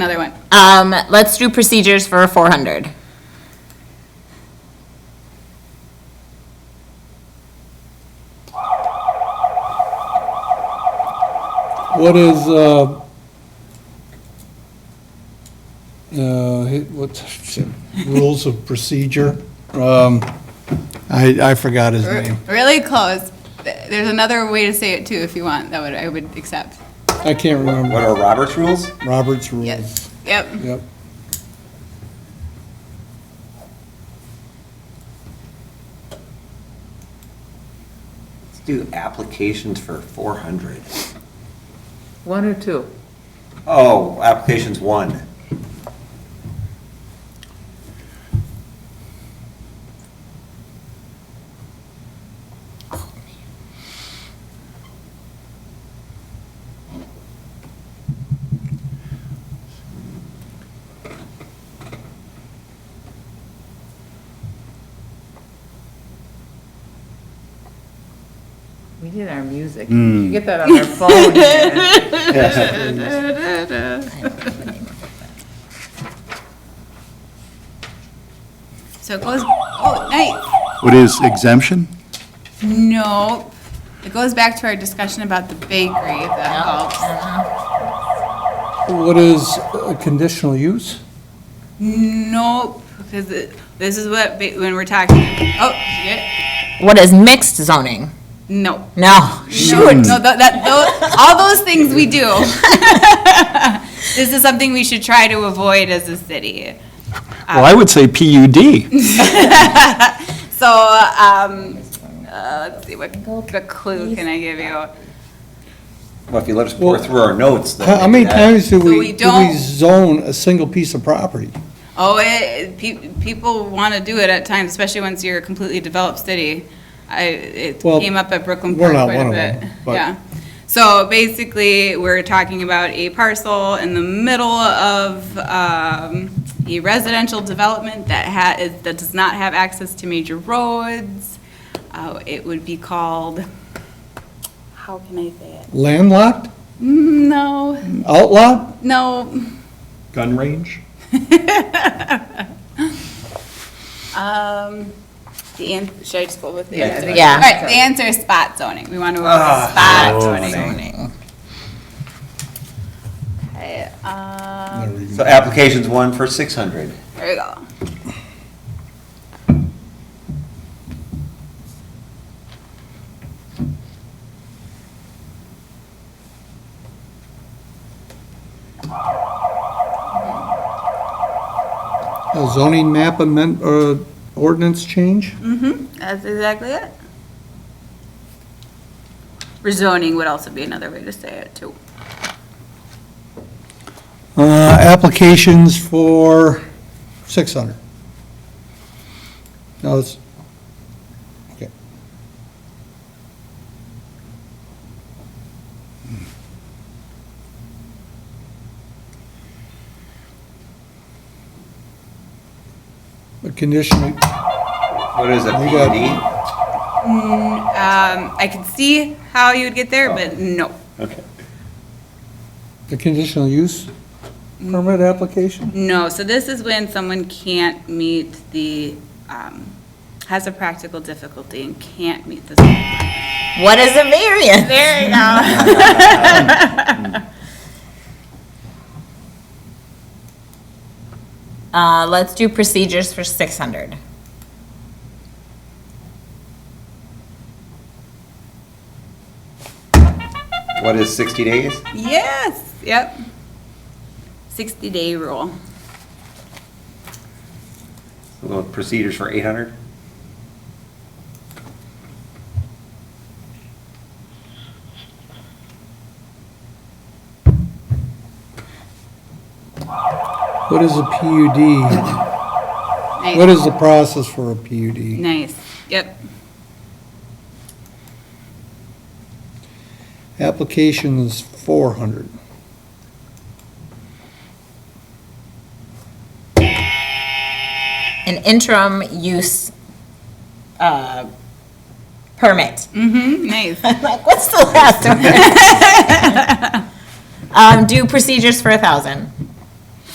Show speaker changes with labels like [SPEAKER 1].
[SPEAKER 1] another one.
[SPEAKER 2] Um, let's do procedures for four hundred.
[SPEAKER 3] What is, uh, uh, hit- what, shit, rules of procedure? Um, I, I forgot his
[SPEAKER 1] Er,
[SPEAKER 3] name.
[SPEAKER 1] Really close. Th- There's another way to say it too, if you want, that would, I would accept.
[SPEAKER 3] I can't
[SPEAKER 4] What
[SPEAKER 3] remember.
[SPEAKER 4] are Robert's rules?
[SPEAKER 3] Robert's rules.
[SPEAKER 1] Yes, yep.
[SPEAKER 3] Yep.
[SPEAKER 4] Let's do applications for 400.
[SPEAKER 5] One or two?
[SPEAKER 4] Oh, applications one.
[SPEAKER 5] We need our music. You Get that on our phone. man.
[SPEAKER 1] So it goes, oh, night.
[SPEAKER 6] What is exemption?
[SPEAKER 1] No, it goes back to our discussion about the bakery, if that helps.
[SPEAKER 3] What is uh, conditional use?
[SPEAKER 1] Nope, because it- this is what, ba- when we're talking, oh, yeah,
[SPEAKER 2] What is mixed zoning?
[SPEAKER 1] no.
[SPEAKER 2] No.
[SPEAKER 1] Shoot. No, tho- that, tho- all those things we do. This is something we should try to avoid as a city.
[SPEAKER 6] Well, I would say PUD.
[SPEAKER 1] So, um, uh, let's see, what, what clue can I give you?
[SPEAKER 4] Well, if you let us pour through our notes, then.
[SPEAKER 3] How how many
[SPEAKER 4] maybe that-
[SPEAKER 3] times do
[SPEAKER 1] we
[SPEAKER 3] we, do we
[SPEAKER 1] don't-
[SPEAKER 3] zone a single piece of property?
[SPEAKER 1] Oh, it, pe- people want to do it at times, especially once you're a completely developed city. I, it
[SPEAKER 3] Well,
[SPEAKER 1] came up at Brooklyn
[SPEAKER 3] we're
[SPEAKER 1] Park
[SPEAKER 3] not
[SPEAKER 1] quite a
[SPEAKER 3] one of them,
[SPEAKER 1] bit.
[SPEAKER 3] but-
[SPEAKER 1] Yeah. So basically, we're talking about a parcel in the middle of, um, a residential development that ha, is- that does not have access to major roads. Uh, it would be called, how can I say it?
[SPEAKER 3] Landlocked?
[SPEAKER 1] No,
[SPEAKER 3] Outlawed?
[SPEAKER 1] no,
[SPEAKER 6] Gun range?
[SPEAKER 1] Um, the an, should I just go with the
[SPEAKER 5] Yeah, I
[SPEAKER 1] answer?
[SPEAKER 5] think
[SPEAKER 2] Yeah.
[SPEAKER 1] All right, the answer is spot zoning. We want to avoid
[SPEAKER 6] Oh,
[SPEAKER 1] spot zoning. Okay, um,
[SPEAKER 4] So applications one for 600.
[SPEAKER 1] there we go.
[SPEAKER 3] A zoning map amend, or ordinance change?
[SPEAKER 1] Mm-hmm, that's exactly it. Rezoning would also be another way to say it too.
[SPEAKER 3] Uh, applications for 600. No, it's, okay. The conditional,
[SPEAKER 4] What is a
[SPEAKER 3] You got-
[SPEAKER 4] PUD?
[SPEAKER 1] Um, I can see how you would get there, but no,
[SPEAKER 4] Okay.
[SPEAKER 3] the conditional use permit application?
[SPEAKER 1] no. So this is when someone can't meet the, um, has a practical difficulty and can't meet the
[SPEAKER 2] What is a variance? There you go. Uh, let's do procedures for six hundred.
[SPEAKER 4] What is 60 days?
[SPEAKER 1] Yes, yep. 60 day rule.
[SPEAKER 4] We'll go with Procedures for 800?
[SPEAKER 3] What is a PUD?
[SPEAKER 1] Nice.
[SPEAKER 3] What is the process for a PUD?
[SPEAKER 1] Nice, yep.
[SPEAKER 3] Applications 400.
[SPEAKER 2] An interim use, uh, permit.
[SPEAKER 1] Mm-hmm, nice.
[SPEAKER 2] I'm like, what's the last one? Um, do procedures for a thousand.